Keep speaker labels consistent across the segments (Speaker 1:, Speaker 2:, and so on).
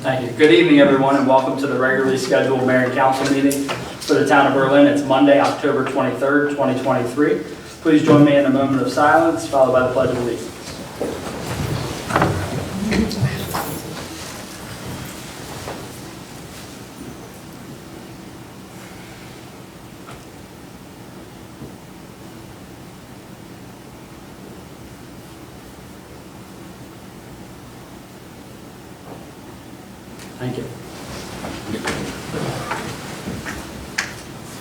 Speaker 1: Thank you. Good evening, everyone, and welcome to the regularly scheduled mayor and council meeting for the town of Berlin. It's Monday, October 23rd, 2023. Please join me in a moment of silence, followed by the pledge of allegiance. Thank you.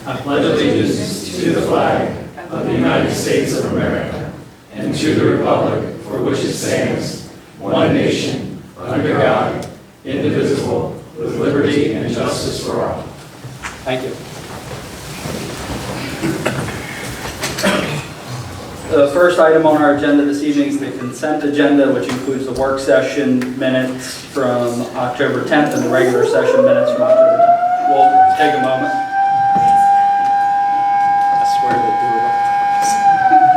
Speaker 1: I pledge
Speaker 2: allegiance to the flag of the United States of America and to the republic for which it stands, one nation, under God, indivisible, with liberty and justice for all.
Speaker 1: Thank you. The first item on our agenda this evening is the consent agenda, which includes the work session minutes from October 10th and the regular session minutes from October 10th. We'll take a moment.
Speaker 3: I swear they do it all.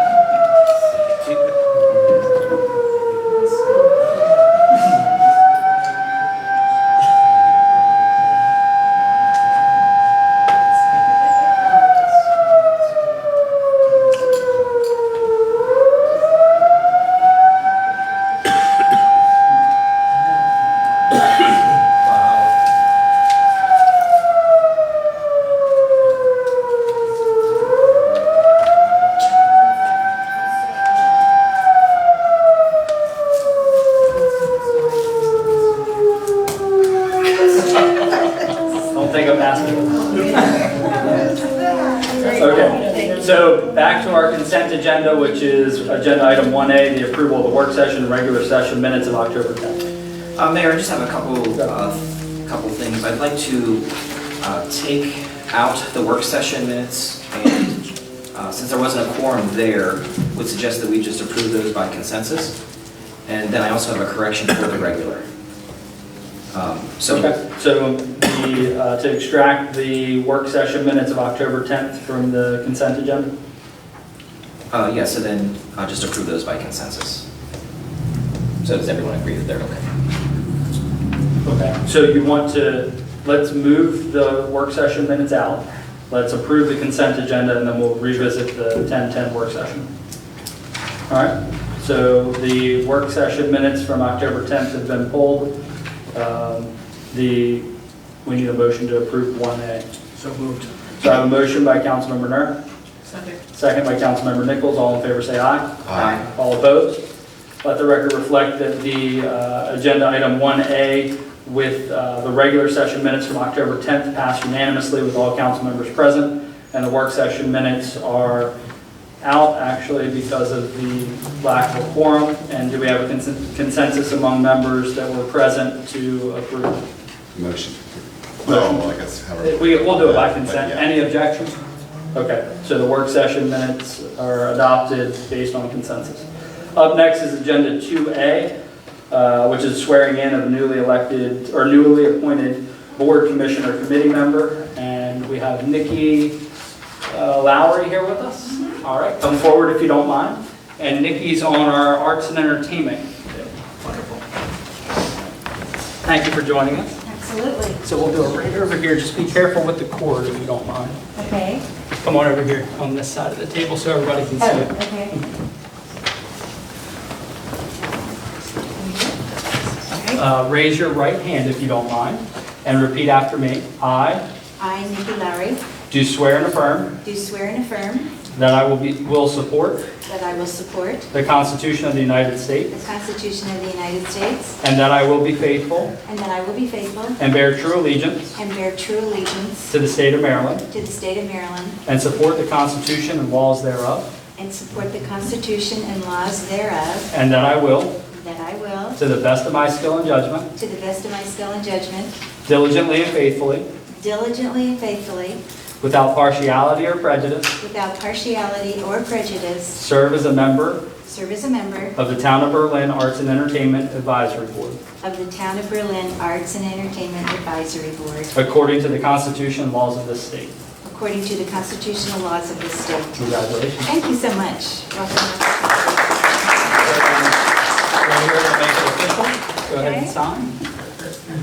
Speaker 1: Don't think I'm asking. Okay, so back to our consent agenda, which is agenda item 1A, the approval of the work session, and regular session minutes of October 10th.
Speaker 4: Uh, Mayor, I just have a couple, uh, couple things. I'd like to uh, take out the work session minutes, and uh, since there wasn't a quorum there, would suggest that we just approve those by consensus. And then I also have a correction for the regular. Um, So,
Speaker 1: Okay, So the, uh, to extract the work session minutes of October 10th from the consent agenda?
Speaker 4: uh, yeah, so then uh, just approve those by consensus. So does everyone agree that they're okay?
Speaker 1: Okay, so you want to, let's move the work session minutes out. Let's approve the consent agenda and then we'll revisit the 10-10 work session. All right, so the work session minutes from October 10th have been pulled. Um, The, we need a motion to approve 1A. So moved. So I have a motion by Councilmember Nur, second by Councilmember Nichols. All in favor, say aye.
Speaker 4: Aye.
Speaker 1: All opposed? Let the record reflect that the uh, agenda item 1A with uh, the regular session minutes from October 10th passed unanimously with all council members present, and the work session minutes are out actually because of the lack of a quorum. And do we have a consen- consensus among members that were present to approve?
Speaker 5: Motion. Well, I guess however.
Speaker 1: We, we'll do it by consent.
Speaker 5: Yeah.
Speaker 1: Any objections? Okay, so the work session minutes are adopted based on consensus. Up next is Agenda 2A, uh, which is swearing in of newly elected, or newly appointed board commissioner committee member. And we have Nikki uh, Lowry here with us. All right, come forward if you don't mind. And Nikki's on our arts and entertainment. Wonderful. Thank you for joining us.
Speaker 2: Absolutely.
Speaker 1: So we'll do it right over here, just be careful with the cord if you don't mind.
Speaker 2: Okay.
Speaker 1: Come on over here, on this side of the table so everybody can
Speaker 2: Oh,
Speaker 1: see it.
Speaker 2: okay. Okay.
Speaker 1: Uh, Raise your right hand if you don't mind, and repeat after me. I
Speaker 2: I, Nikki Lowry,
Speaker 1: do swear and affirm
Speaker 2: do swear and affirm
Speaker 1: that I will be, will support
Speaker 2: that I will support
Speaker 1: the Constitution of the United
Speaker 2: the
Speaker 1: States,
Speaker 2: Constitution of the United States,
Speaker 1: and that I will be faithful
Speaker 2: and that I will be faithful
Speaker 1: and bear true allegiance
Speaker 2: and bear true allegiance
Speaker 1: to the state of Maryland,
Speaker 2: to the state of Maryland,
Speaker 1: and support the Constitution and laws thereof,
Speaker 2: and support the Constitution and laws thereof,
Speaker 1: and that I will,
Speaker 2: that I will,
Speaker 1: to the best of my skill and judgment,
Speaker 2: to the best of my skill and judgment,
Speaker 1: diligently and faithfully,
Speaker 2: diligently and faithfully,
Speaker 1: without partiality or prejudice,
Speaker 2: without partiality or prejudice,
Speaker 1: serve as a member
Speaker 2: serve as a member
Speaker 1: of the Town of Berlin Arts and Entertainment Advisory Board,
Speaker 2: of the Town of Berlin Arts and Entertainment Advisory Board,
Speaker 1: according to the Constitution and laws of this state.
Speaker 2: according to the constitutional laws of the state.
Speaker 1: Congratulations.
Speaker 2: Thank you so much. Welcome.
Speaker 1: Go ahead and make it official. Go ahead and
Speaker 2: Okay.
Speaker 1: sign.